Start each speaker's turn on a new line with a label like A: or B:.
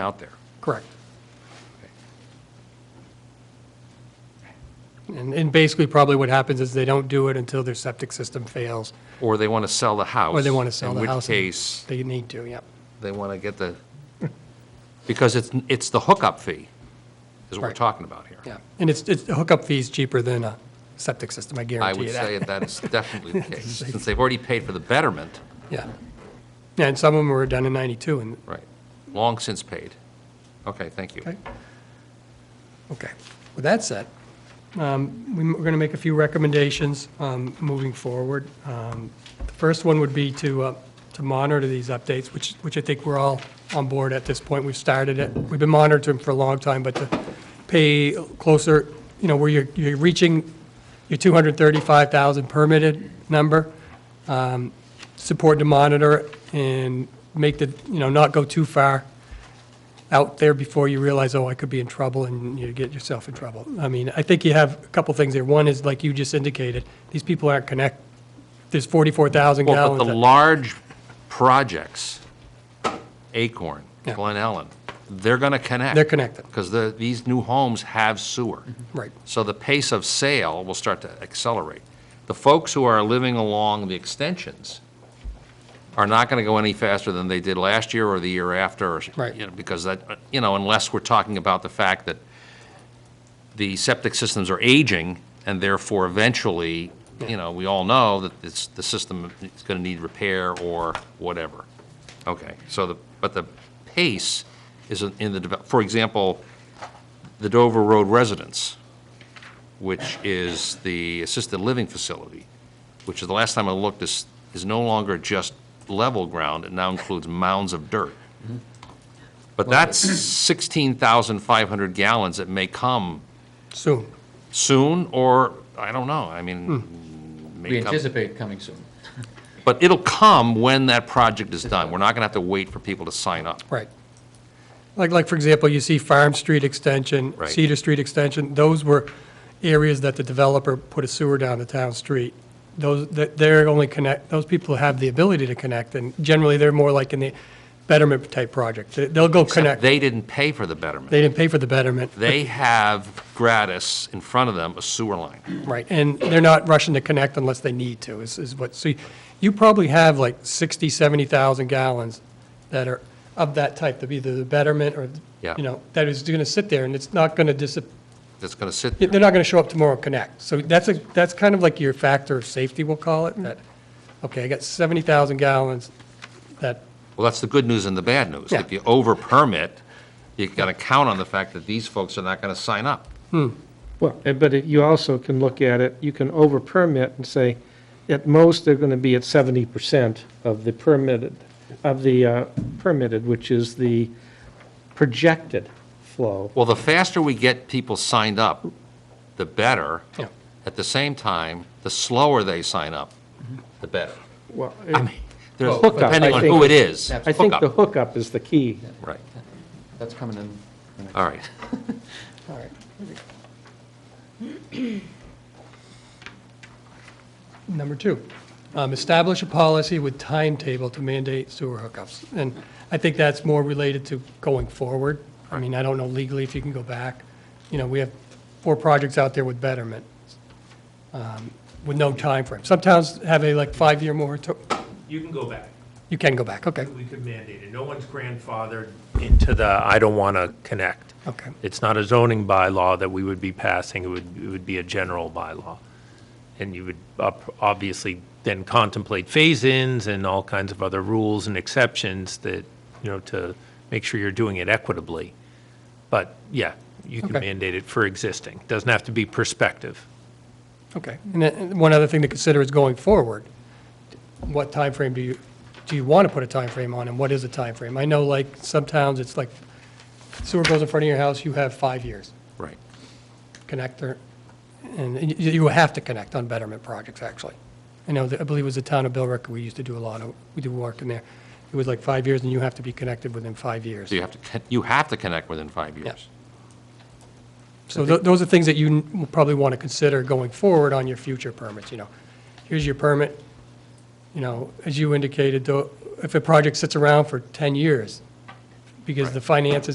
A: out there.
B: Correct. And, and basically, probably what happens is they don't do it until their septic system fails,
A: Or they want to sell the house.
B: or they want to sell the house.
A: In which case,
B: They need to, yep.
A: they want to get the, because it's, it's the hookup fee is what we're
B: Right.
A: talking about here.
B: Yeah, and it's, it's, the hookup fee's cheaper than a septic system, I
A: I
B: guarantee
A: would
B: you
A: say
B: that.
A: that is definitely the case, since they've already paid for the betterment,
B: Yeah. Yeah, and some of them were done in 92, and,
A: right, long since paid. Okay, thank you.
B: okay. Okay, with that said, um, we- we're going to make a few recommendations um, moving forward. Um, The first one would be to, uh, to monitor these updates, which, which I think we're all on board at this point. We've started it, we've been monitoring for a long time, but to pay closer, you know, where you're, you're reaching your 235,000 permitted number, um, support to monitor and make the, you know, not go too far out there before you realize, oh, I could be in trouble, and you get yourself in trouble. I mean, I think you have a couple things there. One is, like you just indicated, these people aren't connect, there's 44,000
A: Well,
B: gallons.
A: but the
B: that-
A: large projects, Acorn,
B: Yeah.
A: Glen Ellen, they're going to connect.
B: They're connected, Mm-hmm.
A: Because the, these new homes have sewer.
B: right,
A: So the pace of sale will start to accelerate. The folks who are living along the extensions are not going to go any faster than they did last year or the year after. or-
B: Right.
A: you know, Because that, you know, unless we're talking about the fact that the septic systems are aging, and therefore eventually, you know, we all know that it's, the system is going to need repair or whatever. Okay, so the, but the pace is in the, devel- for example, the Dover Road residence, which is the assisted living facility, which is, the last time I looked, is, is no longer just level ground, it now includes mounds of dirt. But that's 16,500 gallons that may come
B: soon.
A: soon, or, I don't know, I mean,
B: Hmm.
C: We
A: may come.
C: anticipate coming soon.
A: But it'll come when that project is done, we're not gonna have to wait for people to sign up.
B: Right. Like, like, for example, you see Farm Street Extension,
A: Right.
B: Cedar Street Extension, those were areas that the developer put a sewer down the town street. Those, that- they're only connect, those people have the ability to connect, and generally, they're more like in the betterment-type project. They- They'll go connect,
A: They didn't pay for the betterment,
B: they didn't pay for the betterment.
A: they have gratis in front of them a sewer line.
B: Right, and they're not rushing to connect unless they need to, is, is what, see, you probably have like 60, 70,000 gallons that are of that type, of either the betterment or,
A: Yeah.
B: you know, that is going to sit there, and it's not going to disappear,
A: that's going to sit
B: Yeah,
A: there.
B: They're not going to show up tomorrow and connect. So that's, a that's kind of like your factor of safety, we'll call it, that, okay, I got 70,000 gallons that,
A: Well, that's the good news and the bad news.
B: Yeah.
A: If you over-permit, you got to count on the fact that these folks are not going to sign up.
D: Well, eh, but it- you also can look at it, you can over-permit and say, at most, they're going to be at 70% of the permitted, of the uh, permitted, which is the projected flow.
A: Well, the faster we get people signed up, the better.
B: Yeah.
A: At the same time, the slower they sign up, the better.
D: Well, eh,
A: I mean, there's-
C: Well, hookup,
A: depending
D: I
A: on
D: think-
A: who it is.
D: I think the
A: Hookup.
D: hookup is the key.
A: Right,
C: That's coming in. the next-
A: all right.
B: all right. Number two, um, establish a policy with timetable to mandate sewer hookups. And I think that's more related to going forward. I mean, I don't know legally if you can go back. You know, we have four projects out there with betterment. um, with no time frame. Some towns have a like five-year moratorium.
E: You can go back.
B: You can go back, okay,
E: We could mandate it. No one's grandfathered into the, I don't want to connect.
B: okay.
E: It's not a zoning bylaw that we would be passing. It would, it would be a general bylaw. And you would ob- obviously then contemplate phase-ins and all kinds of other rules and exceptions that, you know, to make sure you're doing it equitably. But yeah, you can
B: Okay.
E: mandate it for existing. Doesn't have to be prospective.
B: Okay. And then, and one other thing to consider is going forward. What time frame do you, do you want to put a time frame on, and what is a time frame? I know like some towns, it's like sewer goes in front of your house, you have five years,
A: Right.
B: connector, and you, you have to connect on betterment projects, actually. I know, that- I believe it was the town of Billrick, we used to do a lot of, we do work in there. It was like five years, and you have to be connected within five years.
A: So you have to, con- you have to connect within five years.
B: So tho- those are things that you n- will probably want to consider going forward on your future permits, you know. Here's your permit, you know, as you indicated, though, if a project sits around for 10 years, because the finances